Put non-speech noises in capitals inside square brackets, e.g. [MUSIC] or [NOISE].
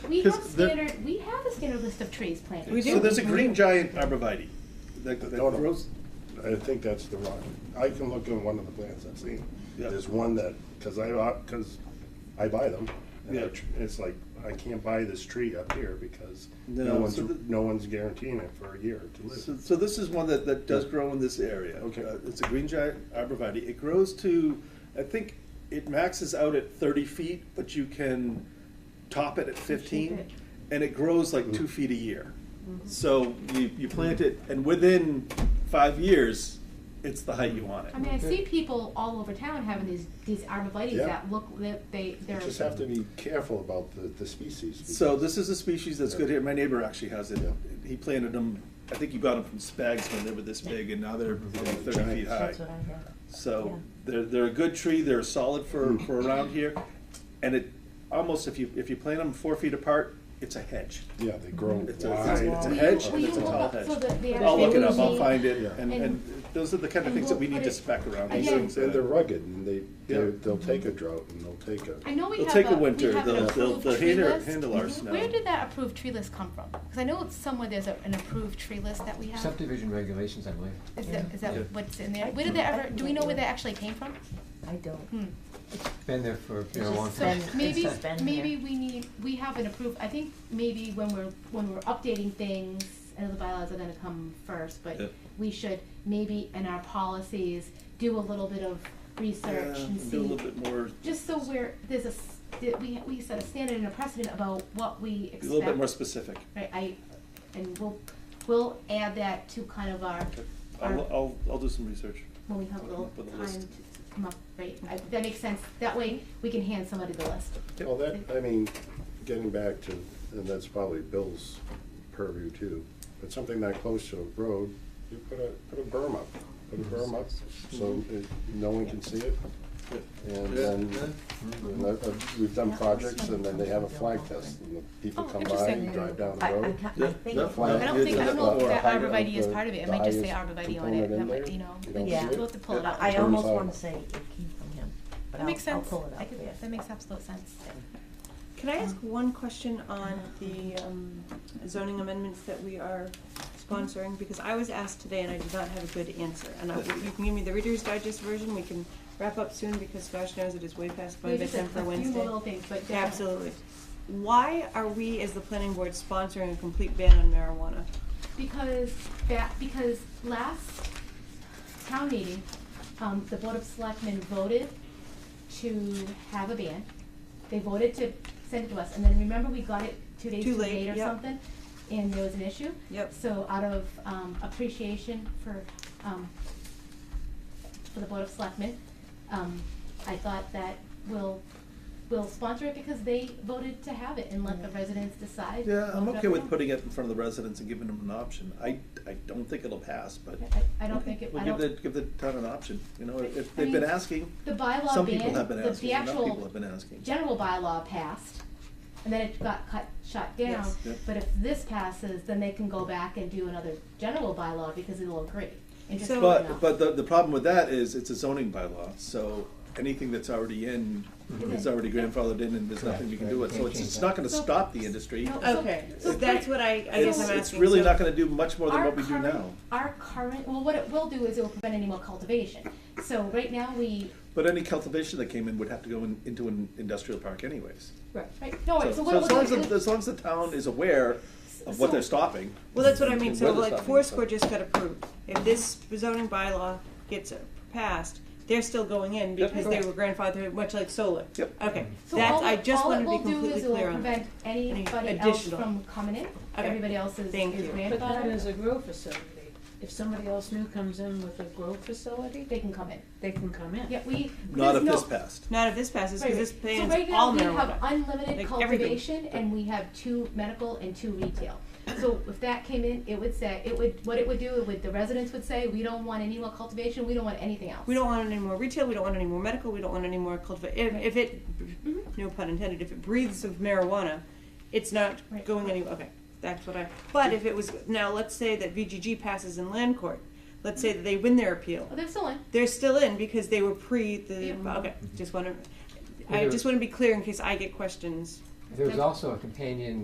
we 'Cause have the- standard, we have a standard list of trees planted. So there's a green giant arborvitae that, that No, no. grows. I think that's the rock. I can look at one of the plants I've seen. Yeah. There's one that, because I, because I buy them. and I Yeah. tr- It's like, I can't buy this tree up here because No, no one's, so the- no one's guaranteeing it for a year to So, live. so this is one that, that does grow in this area. Okay. Uh, It's a green giant arborvitae. It grows to, I think it maxes out at thirty feet, but you can top it at fifteen. it. And it grows like two feet a year. So you, you plant it and within five years, it's the height you want it. I mean, I see people all over town having these, these arborvitae Yeah. that look, that they, You they're. just have to be careful about the, the species. So because- this is a species that's good here. My neighbor actually has it. He planted them, I think you got them from Spags when they were this big and now they're thirty feet high. That's what I have. So they're, they're a good tree, they're solid for, Hmm. for around here, and it, almost if you, if you plant them four feet apart, it's a hedge. Yeah, they grow wide. It's a, it's a- it's a Will you- hedge will and it's a you look tall up hedge. so that the I'll look it up, I'll actual- find it, Yeah. and, And- and those are the kind of and things that we'll we need put to it- spec around, these Again- things. And they're that- rugged and they, Yeah. they're- they'll take a drought and they'll take I a, know we They'll have take a a, we winter, have they'll- an they'll- approved they'll tree handle- list. handle ours now. Where did that approved tree list come from? Because I know it's somewhere there's a- an approved tree list that we have. Subdivision regulations, I believe. Is that, is that Yeah. what's in there? I Where did can- that I ever, can do we look know it where that up. actually came from? I don't. Hmm. Been there for, you know, a just long So time. It's [LAUGHS] maybe, just been maybe there. we need, we have an approved, I think maybe when we're, when we're updating things, I know the bylaws are gonna come first, Yeah. but we should maybe in our policies, do a little bit of research Yeah, and see. Do a little bit more, Just so we're, there's a, s- that we, we set a standard and a precedent about what we a expect. little bit more specific. Right, I, and we'll, we'll add that to kind of our, Okay. our, I'll, I'll, I'll do some research. when we have a little Put the time list. to come up, right, I- that makes sense, that way we can hand somebody the list. well, that, I mean, getting back to, and that's probably Bill's purview too, but something that close to a road, you put a, put a berm up. Put a berm up so it, no one can see it. And then, and I- I- we've done projects and then they have a flag test and the people Oh, come by interesting. and drive down the I, I road. ca- Yeah, I think. yeah. Flag I don't think, I don't know if or that height of arborvitae is the- part of it, it the might just say highest arborvitae on component it, in that might, there. you know, don't we'll see it. have to pull it up. I Turns almost out- wanna say it came from him, but That makes I'll, I'll sense, pull it I up, could- that yeah. makes absolute sense. Can I ask one question on the um, zoning amendments that we are sponsoring? Because I was asked today and I did not have a good answer. And I, you can give me the Reader's Digest version, we can wrap up soon because gosh knows it is way past my Maybe just a bedtime for Wednesday. few more little things, but Yeah, yeah. Absolutely. Why are we, as the planning board, sponsoring a complete ban on marijuana? Because that, because last town meeting, um, the Board of Selectmen voted to have a ban. They voted to send it to us, and then remember, we got it two days Too too late, late or yep. something? And there was an issue? Yep. So out of, um, appreciation for, um, for the Board of Selectmen, um, I thought that we'll, we'll sponsor it because they voted to have it and let the Mm. residents decide. Yeah, I'm vote it up okay or with down. putting it in front of the residents and giving them an option. I, I don't think it'll pass, but I, I don't think it, we'll I give the, don't, give the town an option, you know, if- if I they've been mean, asking. the bylaw Some ban, people have been the- the asking, enough actual people have been asking. general bylaw passed, and then it got cut, shot down. Yes. Yep. But if this passes, then they can go back and do another general bylaw because it'll agree. and just So- vote it But, out. but the, the problem with that is it's a zoning bylaw, so anything that's already in is Okay. already grandfathered in and there's nothing we can do with, so it's, it's not gonna So- stop the industry. No, so- Okay, so that's what I, I guess It's, I'm asking. it's really So- not gonna do much more than Our what we do current- now. Our current, well, what it will do is it will prevent any more cultivation. So right now, we, But any cultivation that came in would have to go in, into an industrial park anyways. right, right, no, So, right, so what so it will as long as, do the- is, as long as the town is aware of what So- they're stopping. Well, that's what I mean, and so where they're like stopping, Foursquare just got approved. If this zoning bylaw gets passed, they're still going in Yep. because they were Correct. grandfathered, much like solar. Yep. Okay, Mm-hmm. so that's, all I it, just all it wanted to be will do completely is it will clear on. that. prevent anybody else additional. from coming in. Everybody else is is Thank you. grandfathered. But that is a grow facility. If somebody else new comes in with a grow facility, they can come in. they can come in. Yeah, we. Not there's if no- this passed. Not if this passes, Right, because this right. bans So all right now, we have marijuana. unlimited Like, everything. cultivation, and we have two medical and two retail. So if that came in, it would say, it would, what it would do, it would, the residents would say, we don't want any more cultivation, we don't want anything else. We don't want any more retail, we don't want any more medical, we don't want any more cultiva- if, if it, Mm-hmm. no pun intended, if it breathes of marijuana, it's not Right. going anywhere, okay, that's what I, but if it was, now let's say that VGG passes in land court. Let's say that they win their appeal. Oh, they're still in. They're still in because they were pre the. Yeah. Okay, just want to. Yeah, I there- just want to be clear in case I get questions. There's also a companion